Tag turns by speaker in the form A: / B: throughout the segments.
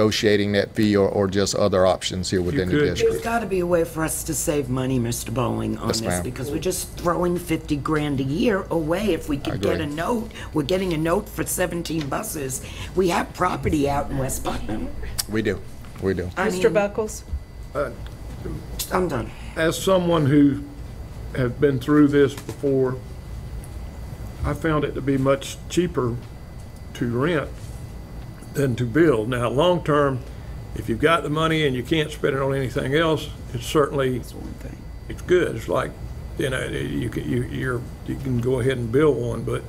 A: negotiating that fee or, or just other options here within the
B: could.
A: district.
C: There's got to be a way for us to save money, Mr. Bowling, on
A: Yes,
C: this,
A: ma'am.
C: because we're just throwing 50 grand a year away if we could get
A: agree.
C: a note. We're getting a note for 17 buses. We have property out in West Putnam.
A: We do, we do.
C: I
D: Mr.
C: mean,
D: Buckles?
C: I'm done.
B: As someone who has been through this before, I found it to be much cheaper to rent than to build. Now, long-term, if you've got the money and you can't spend it on anything else, it's certainly, it's good. It's like, you know, you can, you, you're, you can go ahead and build one, but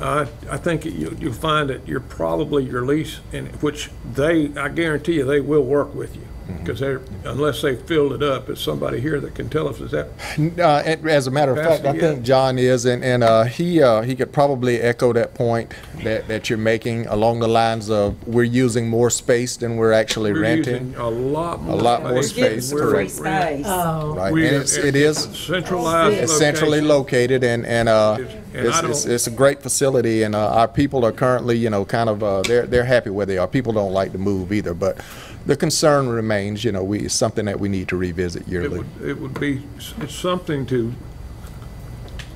B: I, I think you, you'll find that you're probably your lease, and which they, I guarantee you, they will work with you.
A: Mm-hmm.
B: Because they're, unless they filled it up, is somebody here that can tell us, is that,
A: Uh, and as a matter of fact, I
B: Capacity,
A: think
B: yeah.
A: John is, and, and, uh, he, uh, he could probably echo that point that, that you're making along the lines of, we're using more space than we're actually
B: we're
A: renting.
B: using a lot more
A: A
B: space.
A: lot more space,
B: than we're
A: correct.
B: renting.
E: Oh.
A: Right, and
B: We-
A: it's, it is
B: Centralized
A: it's centrally
B: located.
A: located and, and, uh,
B: And I
A: it's, it's,
B: don't-
A: it's a great facility and, uh, our people are currently, you know, kind of, uh, they're, they're happy where they are. People don't like to move either, but the concern remains, you know, we, it's something that we need to revisit
B: It
A: yearly.
B: would, it would be s- it's something to,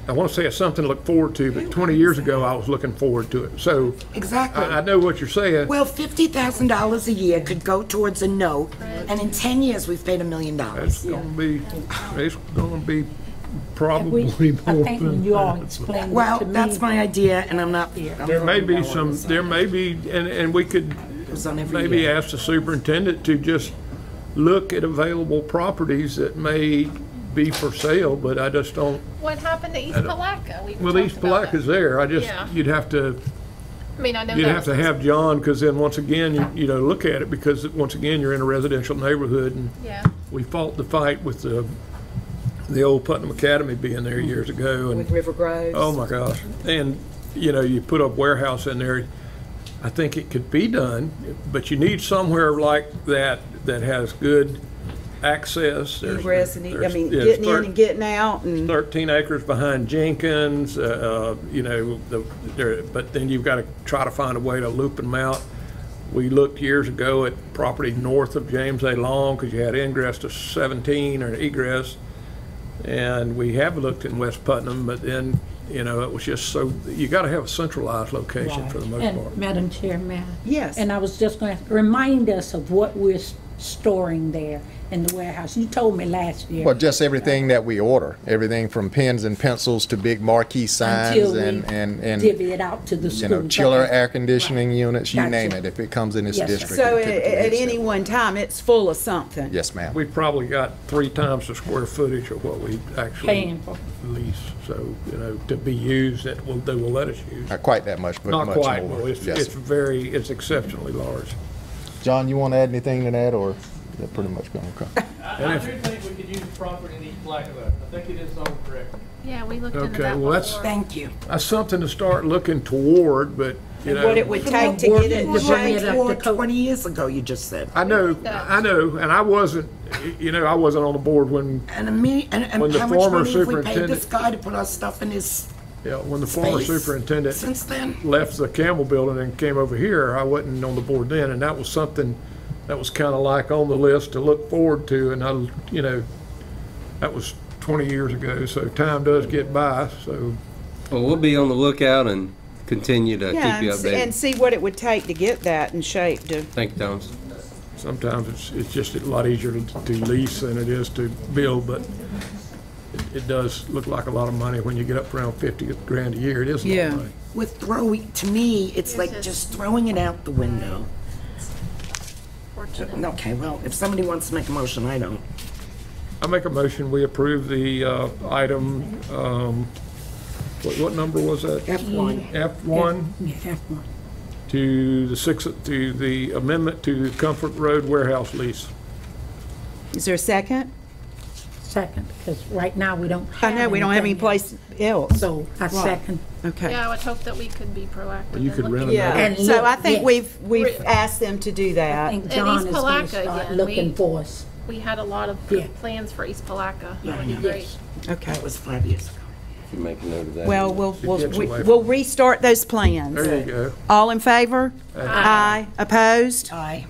B: I want to say it's something to look forward to, but 20 years ago, I was looking forward to it. So
C: Exactly.
B: I, I know what you're saying.
C: Well, $50,000 a year could go towards a note, and in 10 years, we've paid a million
B: It's
C: dollars.
B: gonna be, it's gonna be
E: We,
B: probably
E: I
B: more
E: think
B: than
E: you all
B: that.
E: explained it to me.
C: Well, that's my idea, and I'm not.
B: There may be some, there may be, and, and we could
C: It's on every
B: maybe
C: year.
B: ask the superintendent to just look at available properties that may be for sale, but I just don't,
F: What happened to East Palaca? We
B: well,
F: talked
B: East
F: about
B: Palaca's
F: that.
B: there, I just,
F: Yeah.
B: you'd have to,
F: I mean, I know
B: you'd
F: that
B: have to have John, because then once again, you, you know, look at it, because once again, you're in a residential neighborhood, and
F: Yeah.
B: we fought the fight with the, the old Putnam Academy being there years ago, and
D: With River Groves?
B: Oh, my gosh. And, you know, you put a warehouse in there, I think it could be done, but you need somewhere like that that has good access. There's-
D: Ingress and, e- I
B: there's-
D: mean,
B: there's
D: getting in
B: thir-
D: and getting out and.
B: 13 acres behind Jenkins, uh, uh, you know, the- there- but then you've got to try to find a way to loop them out. We looked years ago at property north of James A. Long because you had ingress to 17 or egress. And we have looked in West Putnam, but then, you know, it was just so, you got to have a centralized location for the most
E: And
B: part.
E: Madam Chair, may I?
D: Yes.
E: And I was just going to remind us of what we're s- storing there in the warehouse. You told me last year.
A: Well, just everything that we order, everything from pens and pencils to big marquee
E: until
A: signs
E: we
A: and, and, and,
E: Divvy it out to the
A: you
E: school.
A: know, chiller air conditioning units, you
E: Gotcha.
A: name it, if it comes in this
E: Yes, sir.
A: district.
D: So
A: it
D: at,
A: typically
D: at
A: hits
D: any
A: that.
D: one time, it's full of something.
A: Yes, ma'am.
B: We've probably got three times the square footage of what we actually
E: Paying for.
B: lease. So, you know, to be used, that will, they will let us use.
A: Not quite that much, but much
B: Not
A: more.
B: quite, well, it's,
A: Yes,
B: it's
A: sir.
B: very, it's exceptionally large.
A: John, you want to add anything to that, or that pretty much gonna come?
G: I I do think we could use the property in East Blacktop. I think it is zoned correctly.
F: Yeah, we looked
B: Okay,
F: into that
B: well, that's-
F: before.
C: Thank you.
B: That's something to start looking toward, but, you
D: What it
B: know,
D: would take to get it in
E: Working to bring it
D: shape.
E: up
C: Or
E: to code.
C: 20 years ago, you just said.
B: I know, I know, and I wasn't, you know, I wasn't on the board when,
C: And a me, and,
B: When
C: and
B: the
C: how much
B: former
C: money have we paid this
B: superintendent-
C: guy to put our stuff in his
B: you know, when the former
C: space?
B: superintendent
C: Since then?
B: left the Campbell Building and came over here, I wasn't on the board then, and that was something that was kind of like on the list to look forward to, and I, you know, that was 20 years ago, so time does get by, so.
H: Well, we'll be on the lookout and continue to
D: Yeah,
H: keep you
D: and see- and
H: updated.
D: see what it would take to get that in shape to.
H: Thank you, Thomas.
B: Sometimes it's, it's just a lot easier to to lease than it is to build, but it- it does look like a lot of money when you get up around 50 grand a year. It is a lot
D: Yeah.
B: of money.
C: With throwing, to me, it's like just throwing it out the window.
F: Fortunate.
C: Okay, well, if somebody wants to make a motion, I don't.
B: I make a motion, we approve the uh, item, um, what, what number was that?
C: F1.
B: F1
E: Yeah, have one.
B: to the six, to the amendment to the Comfort Road warehouse lease.
D: Is there a second?
E: Second, because right now we don't have
D: I know, we don't have any
E: anything
D: place else.
E: So I second.
D: Okay.
F: Yeah, I would hope that we could be proactive.
B: You
F: in
B: could
F: looking-
B: rent another.
E: And
D: So
E: look,
D: I think
E: yeah.
D: we've, we've asked them to do
E: I
D: that.
E: think
F: And
E: John
F: East
E: is going
F: Palaca
E: to start
F: again,
E: looking
F: we-
E: for us.
F: We had a lot of
E: Yeah.
F: plans for East Palaca.
C: Yeah, yeah.
F: Great.
D: Okay.
C: That was five years ago.
H: can make a note of that.
D: Well, we'll, we'll,
B: gets
D: we-
B: away from-
D: we'll restart those plans.
B: There you go.
D: All in favor? Aye. Opposed?
C: Aye.